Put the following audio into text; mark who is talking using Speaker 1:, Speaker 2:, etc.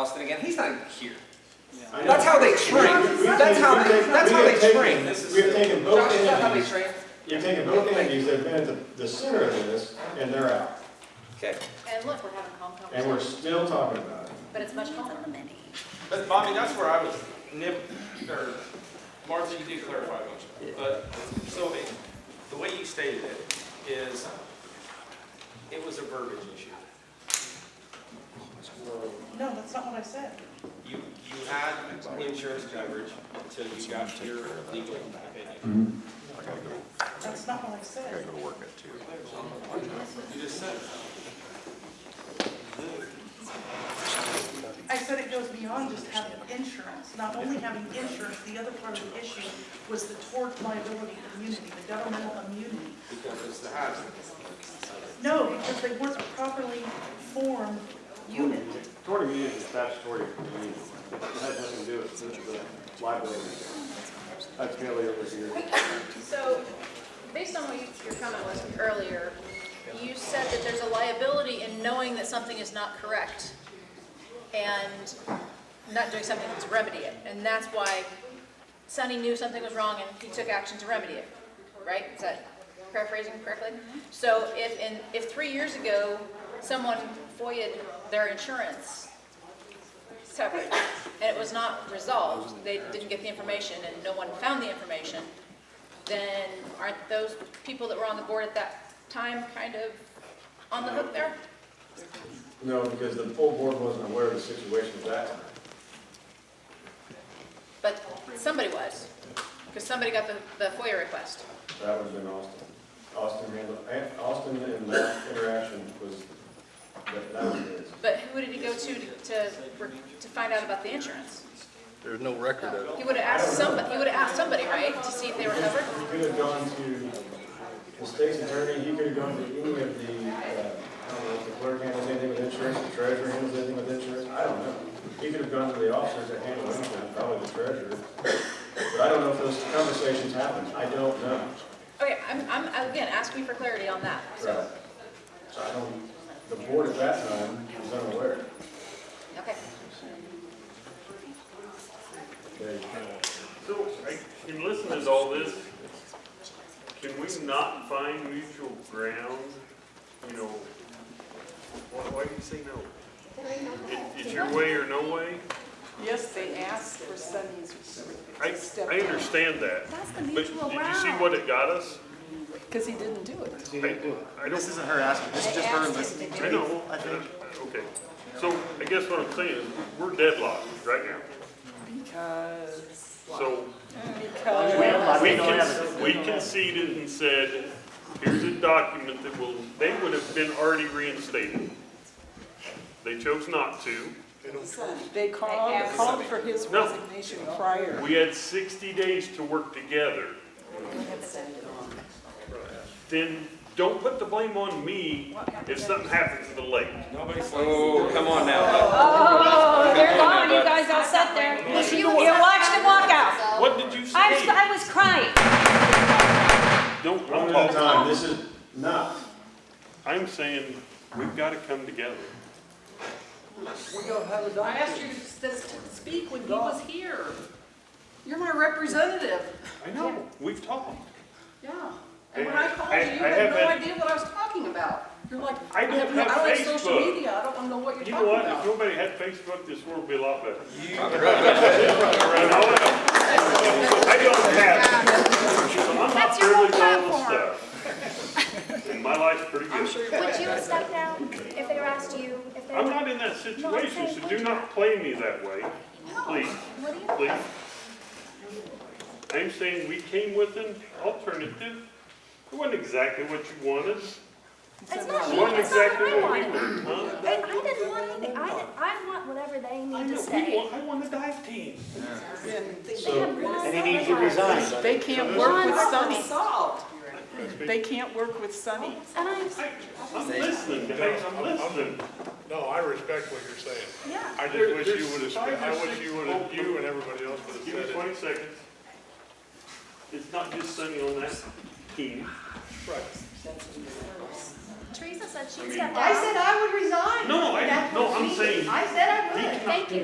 Speaker 1: Austin again. He's not even here.
Speaker 2: I know.
Speaker 1: That's how they
Speaker 2: We-
Speaker 1: train.
Speaker 2: we-
Speaker 1: That's
Speaker 2: we-
Speaker 1: how
Speaker 2: we-
Speaker 1: they-
Speaker 2: we-
Speaker 1: that's
Speaker 2: we
Speaker 1: how
Speaker 2: have
Speaker 1: they
Speaker 2: taken-
Speaker 1: train.
Speaker 2: This is- We have taken both
Speaker 1: Josh, is that how they
Speaker 2: entities,
Speaker 1: train?
Speaker 2: you've taken both entities that have been at the, the center of this, and they're out.
Speaker 1: Okay.
Speaker 3: And look, we're having calm
Speaker 2: And we're
Speaker 3: conversations,
Speaker 2: still talking about it.
Speaker 3: but it's much calmer.
Speaker 4: But Bobby, that's where I was nip, or Martha, you did clarify, don't you? But Sylvia, the way you stated it is, it was a verbiage issue.
Speaker 5: No, that's not what I said.
Speaker 4: You, you had insurance coverage until you got your legal opinion.
Speaker 5: That's not what I said.
Speaker 4: You just said,
Speaker 5: I said it goes beyond just having insurance. Not only having insurance, the other part of the issue was the tort liability immunity, the governmental immunity.
Speaker 4: because it's the hazard.
Speaker 5: No, because they weren't a properly formed unit.
Speaker 6: Tort immunity is statutory immunity. It has nothing to do with the liability. That's merely over here.
Speaker 3: So, based on what you- your comment was earlier, you said that there's a liability in knowing that something is not correct and not doing something to remedy it. And that's why Sonny knew something was wrong and he took action to remedy it, right? Is that paraphrasing correctly? So if, in, if three years ago, someone foia their insurance separate, and it was not resolved, they didn't get the information, and no one found the information, then aren't those people that were on the board at that time kind of on the hook there?
Speaker 2: No, because the full board wasn't aware of the situation at that time.
Speaker 3: But somebody was, because somebody got the, the FOIA request.
Speaker 2: That would have been Austin. Austin handled, and Austin and that interaction was, that, that was his.
Speaker 3: But who did he go to to, to find out about the insurance?
Speaker 7: There's no record of it.
Speaker 3: He would have asked somebody, he would have asked somebody, right, to see if they were covered?
Speaker 2: He could have gone to the state's attorney, he could have gone to any of the, uh, I don't know, if the clerk handles anything with insurance, the treasurer handles anything with insurance, I don't know. He could have gone to the officers that handle insurance, probably the treasurer. But I don't know if those conversations happened, I don't know.
Speaker 3: Okay, I'm, I'm, again, ask me for clarity on that, so,
Speaker 2: So I don't, the board at that time was unaware.
Speaker 3: okay.
Speaker 2: They- uh,
Speaker 8: So, I, in listening to all this, can we not find mutual ground? You know, why, why do you say no? It- It's your way or no way?
Speaker 5: Yes, they asked for Sunny's.
Speaker 8: I, I understand that.
Speaker 9: That's the
Speaker 8: But
Speaker 9: mutual
Speaker 8: did you see what it got us?
Speaker 9: Because he didn't do it.
Speaker 8: I, I don't,
Speaker 6: This isn't her asking, this is just her listening
Speaker 8: I know,
Speaker 6: I think.
Speaker 8: okay. So, I guess what I'm saying is, we're deadlocked right now.
Speaker 9: Because.
Speaker 8: So,
Speaker 9: Because.
Speaker 8: We con- we conceded and said, here's a document that will, they would have been already reinstated. They chose not to.
Speaker 9: They called, called for his
Speaker 8: No.
Speaker 9: resignation prior.
Speaker 8: We had sixty days to work together. Then don't put the blame on me if something happens at the lake.
Speaker 1: Oh, come on now.
Speaker 10: Oh, they're gone, you guys all sat there. You watched them walk out.
Speaker 8: What did you
Speaker 10: I was,
Speaker 8: say?
Speaker 10: I was crying.
Speaker 8: Don't,
Speaker 2: One
Speaker 8: I'm,
Speaker 2: at a
Speaker 8: all-
Speaker 2: time, this is not,
Speaker 8: I'm saying, we've gotta come together.
Speaker 5: I asked you to speak when he was here. You're my representative.
Speaker 8: I know, we've talked.
Speaker 5: Yeah.
Speaker 8: And when I called you, you I- I had no haven't-
Speaker 5: idea what I was talking about. You're like,
Speaker 8: I don't have
Speaker 5: like social
Speaker 8: Facebook.
Speaker 5: media. I don't wanna know what
Speaker 8: You know what, if nobody had Facebook, this world would be a lot better. And all that- I don't have. it. So I'm
Speaker 3: That's
Speaker 8: not
Speaker 3: your whole
Speaker 8: really doing this stuff. And my life's pretty good.
Speaker 11: Would you have stepped down if they were asked you, if they
Speaker 8: I'm
Speaker 11: were?
Speaker 8: not in that situation, so do not play me that way, please,
Speaker 11: What do you,
Speaker 8: please. I'm saying we came with an alternative. It wasn't exactly what you wanted.
Speaker 11: it's not
Speaker 8: It
Speaker 11: me,
Speaker 8: wasn't
Speaker 11: it's not
Speaker 8: exactly
Speaker 11: what I
Speaker 8: what we
Speaker 11: wanted.
Speaker 8: wanted, huh?
Speaker 11: And I didn't want anything, I, didn't- I want whatever they
Speaker 8: I
Speaker 11: need to
Speaker 8: know, we
Speaker 11: say.
Speaker 8: want, I want a dive team.
Speaker 11: They have one
Speaker 6: And he needs to
Speaker 11: other guy.
Speaker 6: resign.
Speaker 9: They can't work with Sunny. They can't work with Sunny.
Speaker 11: And I'm,
Speaker 8: I'm listening, guys, I'm listening.
Speaker 7: No, I respect what you're saying.
Speaker 5: Yeah.
Speaker 7: I
Speaker 8: There-
Speaker 7: just wish
Speaker 8: there's
Speaker 7: you would have,
Speaker 8: five or
Speaker 7: I wish
Speaker 8: six
Speaker 7: you would have,
Speaker 8: old-
Speaker 7: you and everybody else would have
Speaker 8: Give
Speaker 7: said
Speaker 8: me
Speaker 7: it.
Speaker 8: twenty seconds. It's not just Sunny on that team.
Speaker 12: Teresa said
Speaker 5: I
Speaker 12: she's
Speaker 5: mean-
Speaker 12: stepped out.
Speaker 8: I said I would resign.
Speaker 5: No, I-
Speaker 8: That
Speaker 5: no,
Speaker 8: was
Speaker 5: I'm
Speaker 8: me.
Speaker 5: saying-
Speaker 8: I said I
Speaker 5: He
Speaker 8: would.
Speaker 5: cannot
Speaker 8: Thank you.